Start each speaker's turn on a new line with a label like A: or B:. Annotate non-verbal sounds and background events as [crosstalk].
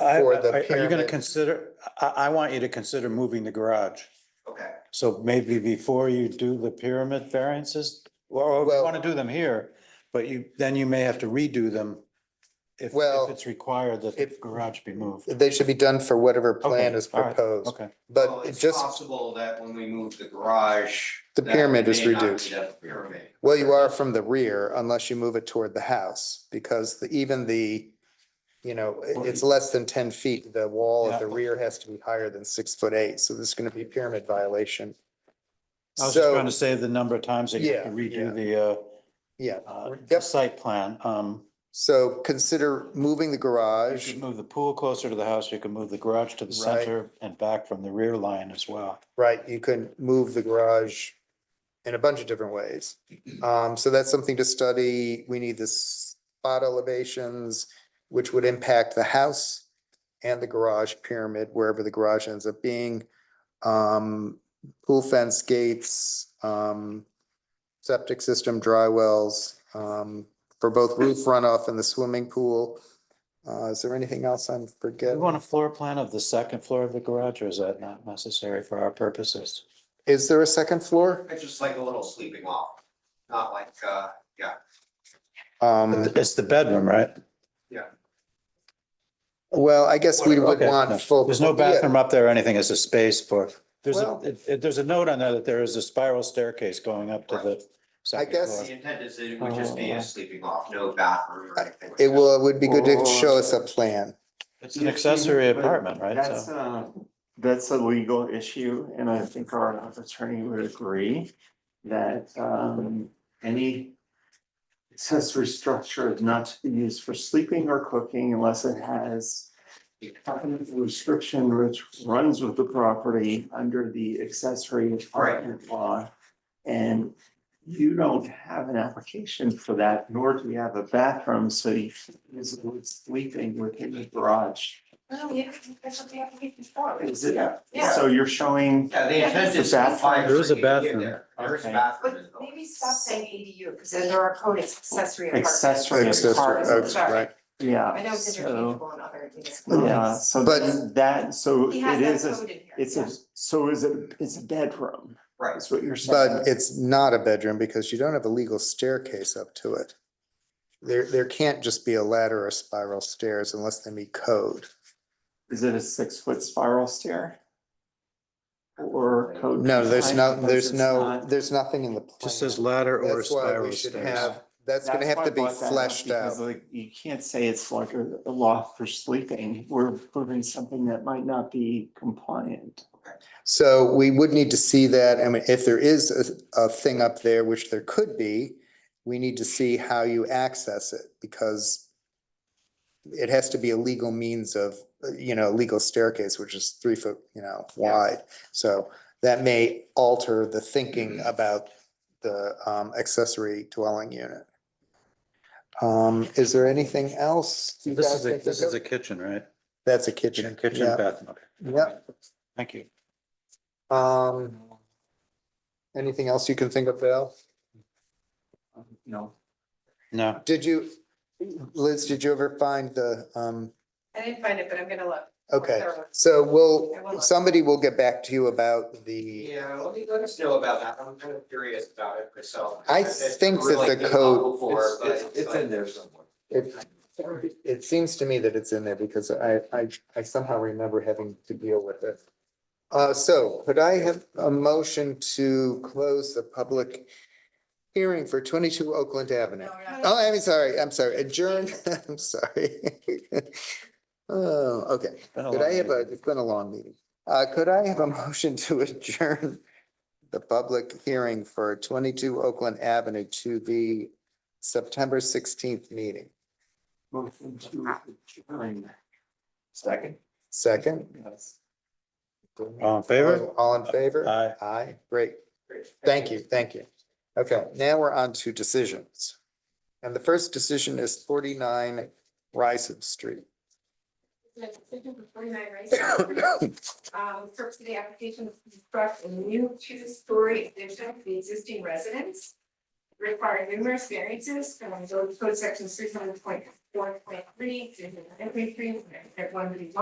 A: I-
B: For the
A: I- Are you gonna
B: pyramid.
A: consider, I, I want you to consider moving the garage.
C: Okay.
A: So maybe before you do the pyramid variances, or if you
B: Well-
A: want to do them here, but you, then you may have to redo them if,
B: Well,
A: if it's required that the
B: if-
A: garage be moved.
B: They should be done for whatever plan
A: Okay,
B: is
A: all right,
B: proposed,
A: Okay,
C: Well,
B: but it
C: It's
B: just,
C: possible that when we move the garage.
B: The
C: that
B: pyramid
C: we
B: is
C: may not
B: reduced.
C: need a Pyramid.
B: well, you are from the rear unless you move it toward the house, because the- even the, you know, it- it's less than ten feet. The wall at the
A: Yeah.
B: rear has to be higher than six foot eight, so this is gonna be a pyramid violation.
A: I was just trying
B: So,
A: to save the number of times that you have to
B: Yeah,
A: redo the,
B: yeah,
A: uh, uh, the
B: yep,
A: site plan. Um,
B: so consider moving the
A: you
B: garage,
A: could move the pool closer to the house, you can move the garage to the
B: Right.
A: center and back from the rear line as well.
B: right? You can move the garage in a bunch of different ways. Um, so that's something to study. We need the spot elevations, which would impact the house and the garage pyramid, wherever the garage ends up being. Um, pool fence gates, um, septic system, dry wells, um, for both roof runoff and the swimming pool. Uh, is there anything else I'm
A: Do you
B: forgetting?
A: want a floor plan of the second floor of the garage or is that not necessary for our purposes?
B: Is there a second floor?
C: It's just like a little sleeping off, not like, uh,
B: Um.
A: It's the bedroom, right?
B: Well, I guess we would
A: Okay, no.
B: want full.
A: There's no
B: yeah,
A: bathroom up there or anything, it's a space for, there's a,
B: Well-
A: it- it- there's a note on there that there is a spiral staircase going up to the second
B: guess-
A: floor.
C: the intent is it would just be a sleeping off, no bathroom or anything. like
B: It
C: that.
B: will, it would be good to
D: Or-
B: show us a plan.
A: It's an accessory apartment, right?
D: That's
A: So
D: a, that's a legal issue, and I think our attorney would agree that um any accessory structure is not to be used for sleeping or cooking unless it has a covenant restriction which runs with the property under the accessory apartment law. And you don't have an application for that, nor do we have a bathroom, so you can't use the word sleeping within the garage.
E: Well, yeah, that's what the application for.
D: Is it?
E: Yeah.
D: So you're showing,
C: Yeah, the intent
D: It's
C: is.
D: a bathroom.
A: There is a bathroom.
C: There is a
D: Okay.
C: bathroom. in
E: But
C: the building.
E: maybe stop saying ADU, because there are code accessory apartments.
D: Accessory Accessory, oh, apartment.
B: okay,
E: Sorry.
B: uh, right.
E: I know
D: yeah,
E: because there are
D: so,
E: people in other municipalities.
D: yeah, so
B: But-
D: then that, so it
E: He has
D: is,
E: that
D: a
E: code in here.
D: it's a, so is it, it's a bedroom,
C: Right,
D: is what you're saying.
B: But it's not a bedroom because you don't have a legal staircase up to it. There, there can't just be a ladder or spiral stairs unless they meet code.
D: Is it a six foot spiral stair? Or code?
B: No, there's
D: compliant?
B: no,
D: Because
B: there's
D: it's
B: no,
D: not-
B: there's nothing in the plan.
A: just says ladder or
B: That's why we
A: spiral
B: should
A: stairs.
B: have, that's gonna
D: That's
B: have
D: why
B: to
D: I
B: be
D: brought that up,
B: fleshed out.
D: because, like, You can't say it's like a a loft for sleeping, we're proving something that might not be compliant.
B: So we would need to see that, and if there is a, a thing up there, which there could be, we need to see how you access it, because it has to be a legal means of, you know, legal staircase, which is three foot, you know, wide. So that may alter the thinking about the um, accessory dwelling unit. Um, is there anything else? you
A: This
B: guys
A: is a,
B: think
A: this
B: of?
A: is a kitchen, right?
B: That's a kitchen.
A: Kitchen,
B: Yeah.
A: bathroom. Okay.
B: Yep.
A: Thank you.
B: Um, anything else you can think of, Val?
D: No.
A: No,
B: Did you, Liz, did you ever find the, um,
E: I didn't find it, but I'm gonna look. more
B: okay,
E: thoroughly.
B: so
E: I will
B: we'll,
E: look.
B: somebody will get back to you about the,
C: yeah, let me, let us know about that, I'm kind of curious about it myself.
B: I
C: It's
B: think that
C: really
B: the
C: been
B: code-
C: done Before, but.
F: It's, it's in there somewhere.
B: it, it seems to me that it's in there because I, I, I somehow remember having to deal with it. Uh, so could I have a motion to close the public hearing for twenty-two Oakland Avenue?
E: No, we're not.
B: Oh, I'm sorry, I'm sorry, adjourn, [laughs] I'm sorry. [laughs] Oh, okay.
A: Been a
B: Could
A: long
B: I have a,
A: meeting.
B: it's been a long meeting. Uh, could I have a [laughs] motion to adjourn the public hearing for twenty-two Oakland Avenue to the September sixteenth meeting?
D: Motion to adjourn.
F: Second.
B: Second?
D: Yes.
A: All in favor?
B: All in favor?
A: Aye.
B: Aye, great. Thank you, thank you. Okay, now we're on to decisions. And the first decision is forty-nine Rice Street. [laughs]
E: The decision for 49 Rice. Um, purpose of the application is to construct a new two-story addition to the existing residence. require numerous variances from those code sections three hundred point four point three, three hundred and three, three hundred and one